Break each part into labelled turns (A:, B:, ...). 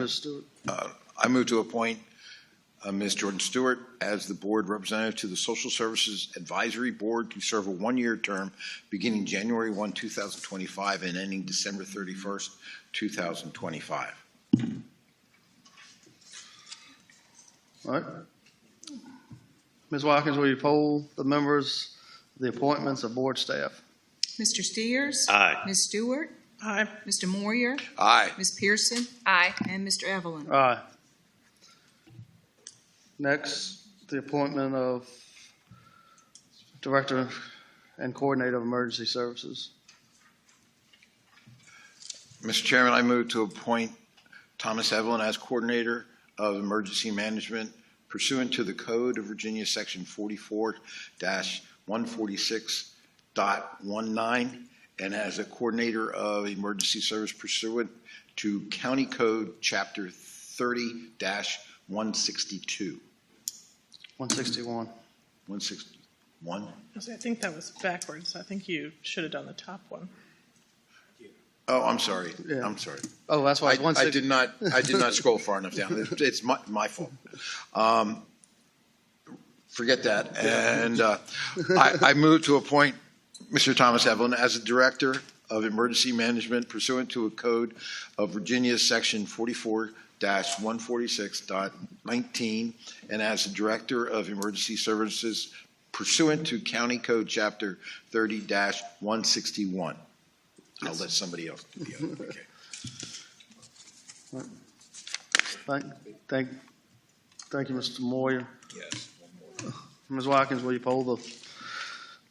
A: Ms. Stewart.
B: I move to appoint uh, Ms. Jordan Stewart as the board representative to the Social Services Advisory Board to serve a one-year term beginning January 1, 2025, and ending December 31st, 2025.
A: All right. Ms. Watkins, will you poll the members, the appointments of board staff?
C: Mr. Steers?
D: Aye.
C: Ms. Stewart?
D: Aye.
C: Mr. Moyer?
B: Aye.
C: Ms. Pearson? Aye. And Mr. Evelyn?
A: Aye. Next, the appointment of Director and Coordinator of Emergency Services.
B: Mr. Chairman, I move to appoint Thomas Evelyn as Coordinator of Emergency Management pursuant to the Code of Virginia, Section 44-146.19, and as a Coordinator of Emergency Service pursuant to County Code, Chapter 30-162.
A: 161.
B: 161?
E: I think that was backwards. I think you should have done the top one.
B: Oh, I'm sorry.
A: Yeah.
B: I'm sorry.
A: Oh, that's why it's
B: I, I
A: 160.
B: did not, I did not scroll far enough down. It's- It's my, my fault. Um, Forget that. And uh, I, I move to appoint Mr. Thomas Evelyn as the Director of Emergency Management pursuant to a code of Virginia, Section 44-146.19, and as the Director of Emergency Services pursuant to County Code Chapter 30-161. I'll let somebody else do the other. Okay.
A: Thank, thank, thank you, Mr. Moyer.
B: Yes.
A: Ms. Watkins, will you poll the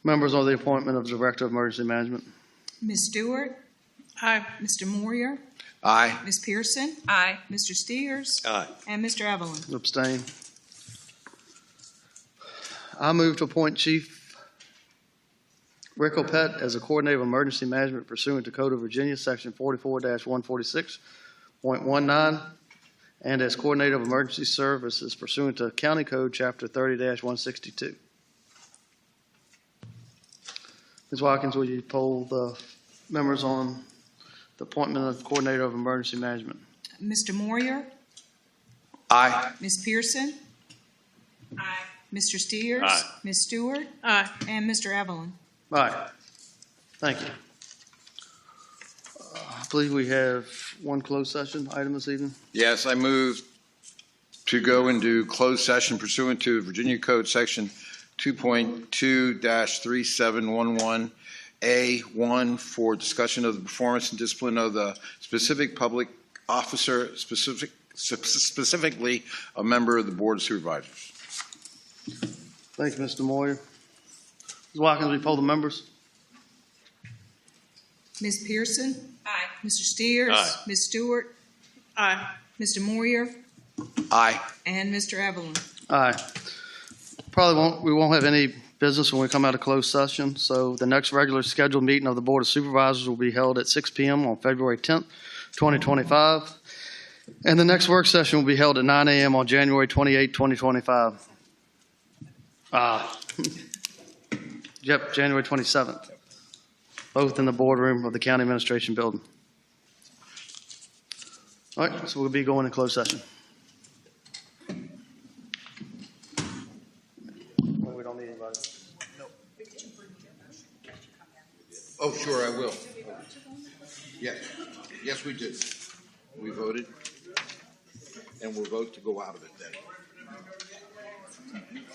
A: members on the appointment of Director of Emergency Management?
C: Ms. Stewart?
E: Aye.
C: Mr. Moyer?
B: Aye.
C: Ms. Pearson? Aye. Mr. Steers?
D: Aye.
C: And Mr. Evelyn?
A: Abstain. I move to appoint Chief Rick Opett as a coordinator of emergency management pursuant to Code of Virginia, Section 44-146.19, and as coordinator of emergency services pursuant to County Code, Chapter 30-162. Ms. Watkins, will you poll the members on the appointment of coordinator of emergency management?
C: Mr. Moyer?
B: Aye.
C: Ms. Pearson? Aye. Mr. Steers?
D: Aye.
C: Ms. Stewart?
E: Aye.
C: And Mr. Evelyn?
A: All right. Thank you. Uh, I believe we have one closed session item this evening.
B: Yes, I move to go into closed session pursuant to Virginia Code Section 2.2-3711A1 for discussion of the performance and discipline of the specific public officer, specific, specifically a member of the Board of Supervisors.
A: Thank you, Mr. Moyer. Ms. Watkins, will you poll the members?
C: Ms. Pearson? Aye. Mr. Steers?
D: Aye.
C: Ms. Stewart?
E: Aye.
C: Mr. Moyer?
B: Aye.
C: And Mr. Evelyn?
A: Aye. Probably won't, we won't have any business when we come out of closed session, so the next regular scheduled meeting of the Board of Supervisors will be held at 6 PM on February 10th, 2025. And the next work session will be held at 9 AM on January 28th, 2025. Ah. Yep, January 27th. Both in the boardroom of the County Administration Building. All right, so we'll be going to closed session. We don't need anybody.
B: Oh, sure, I will. Yes, yes, we did. We voted, and we'll vote to go out of it then.